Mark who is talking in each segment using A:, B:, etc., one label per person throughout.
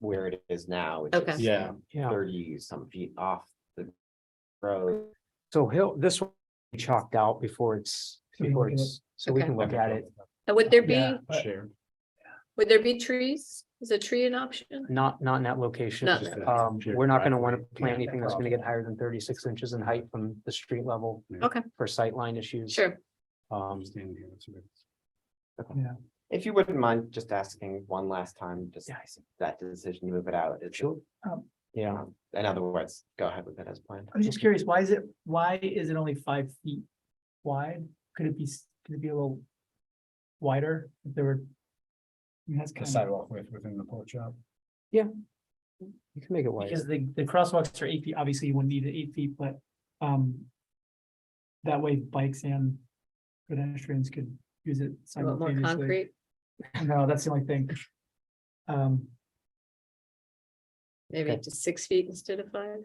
A: where it is now. which
B: Okay.
A: is
C: Yeah.
D: Yeah,
A: Thirty some feet off the road.
D: so he'll, this will be chalked out before it's,
E: So we
D: before
E: can look-
D: it's, so we
B: Okay.
D: can look at it.
B: And would there be,
E: Yeah, but-
C: Shared.
B: would there be trees? Is a tree an option?
D: Not, not in that location.
B: Not
C: that.
D: Um, we're not gonna wanna plant
B: Yeah.
D: anything that's gonna get higher than thirty-six inches in height from the street level.
C: Yeah.
B: Okay.
D: For sightline issues.
B: Sure.
D: Um,
C: Understand here, that's a bit-
A: If you wouldn't mind just asking one last time, just
D: Yeah.
A: that decision to move it out. It's,
D: sure.
E: Um,
D: Yeah,
A: um, in other words, go ahead with it as planned.
E: I was just curious, why is it, why is it only five feet wide? Could it be, s- could it be a little wider if there were? I mean, That's
C: The
E: kind of,
C: sidewalk width within the porch shop.
D: you can make it wide.
E: because the, the crosswalks are eight feet, obviously you wouldn't need it eight feet, but, um. That way bikes and pedestrians could use it
B: You want more
E: simultaneously.
B: concrete?
E: No, that's the only thing. Um,
B: Maybe
D: Okay.
B: up to six feet instead of five?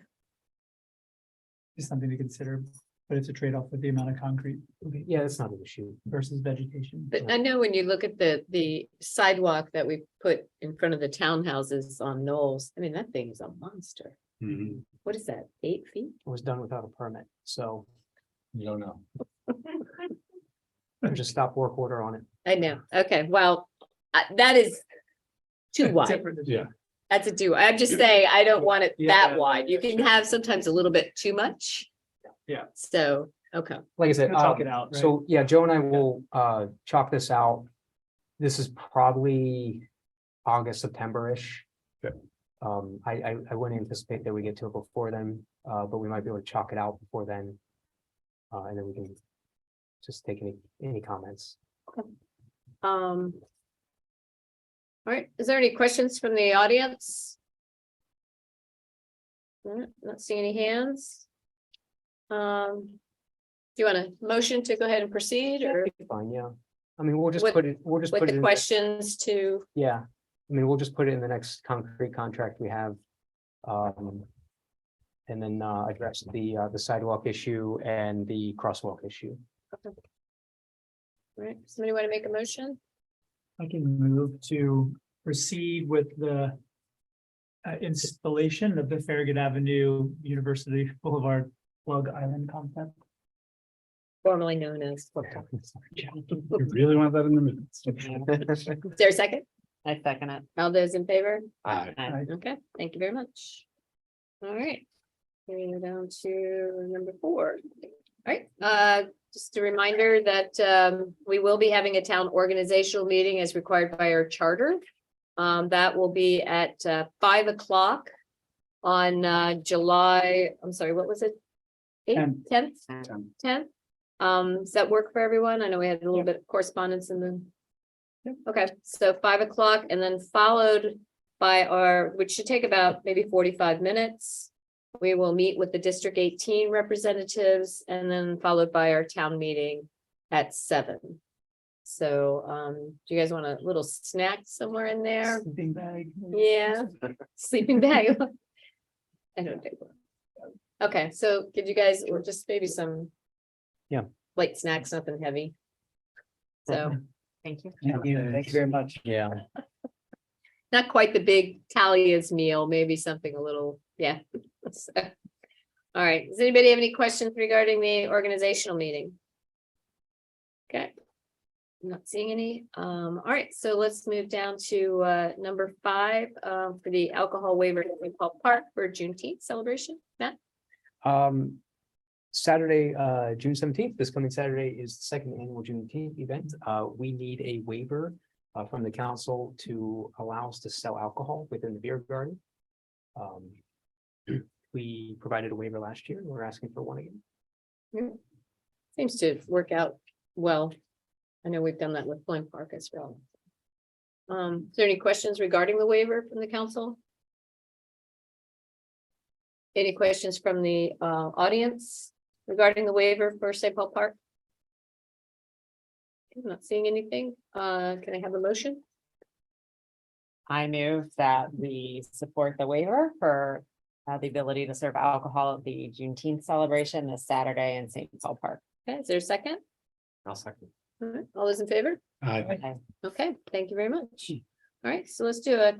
E: just something to consider, but it's a trade-off with the amount of concrete
D: Okay, Yeah, that's not an issue.
E: versus vegetation.
B: But I know when you look at the, the sidewalk that we put in front of the townhouses on Knowles, I mean, that thing is a monster.
C: Mhm.
B: What is that, eight feet?
D: It was done without a permit, so
C: You don't know.
D: there's a stop work order on it.
B: I know, okay, well, I- that is too wide.
E: Different-
C: Yeah.
B: That's a do, I'm just saying, I don't want it
E: Yeah,
B: that wide. You can have sometimes a little bit too much.
E: Yeah.
B: So, okay,
D: Like I said,
E: We'll talk
D: um,
E: it out, right?
D: So, yeah, Joe and I will uh chalk this out. This is probably August, September-ish.
C: Yep.
D: Um, I I I wouldn't anticipate that we get to it before then, uh, but we might be able to chalk it out before then. Uh, and then we can just take any any comments.
B: um. All right, is there any questions from the audience? All right, Not seeing any hands. Um. Do you want a motion to go ahead and proceed or
D: Fine, yeah. I mean, we'll just
B: With-
D: put it, we'll just
B: with
D: put it,
B: the
D: in-
B: questions to,
D: yeah. I mean, we'll just put it in the next concrete contract we have. Um. And then uh address the uh the sidewalk issue and the crosswalk issue.
B: right, somebody want to make a motion?
E: I can move to proceed with the uh, installation of the Farragut Avenue University Boulevard plug island concept.
B: Formerly known as.
C: You really want that in the minutes?
B: Is there a second? I second it. All those in favor?
A: Aye.
E: Aye.
B: Okay, thank you very much. All right. Moving down to number four. All right, uh, just a reminder that um, we will be having a town organizational meeting as required by our charter. Um, that will be at uh, five o'clock on uh, July, I'm sorry, what was it? Eighth,
E: Tenth.
B: tenth,
C: Ten.
B: tenth? Um, does that work for everyone? I know we had a little bit of correspondence and then. Okay, so five o'clock and then followed by our, which should take about maybe forty-five minutes. We will meet with the District eighteen representatives and then followed by our town meeting at seven. So, um, do you guys want a little snack somewhere in there?
E: Sleeping bag.
B: Yeah, sleeping bag. I don't think. one. Okay, so give you guys, or just maybe some.
D: Yeah.
B: Light snacks, nothing heavy. So, thank you.
E: Thank you. Thank you very much.
D: Yeah.
B: Not quite the big Talia's meal, maybe something a little, yeah. So, All right, does anybody have any questions regarding the organizational meeting? Okay. Not seeing any. Um, all right, so let's move down to uh number five uh for the alcohol waiver at St. Paul Park for Juneteenth celebration. Matt?
D: Um, Saturday, uh, June seventeenth, this coming Saturday is the second annual Juneteenth event. Uh, we need a waiver uh, from the council to allow us to sell alcohol within the beer garden. Um, we provided a waiver last year. and We're asking for one again.
B: Seems to work out well. I know we've done that with Flint Park as well. Um, is there any questions regarding the waiver from the council? Any questions from the uh audience regarding the waiver for St. Paul Park? I'm Not seeing anything. Uh, can I have a motion?
F: I move that we support the waiver for uh, the ability to serve alcohol at the Juneteenth celebration this Saturday in St. Paul Park.
B: Okay, is there a second?
A: I'll second.
B: All right, all those in favor?
C: Aye.
B: Okay, thank you very much. All right, so let's do a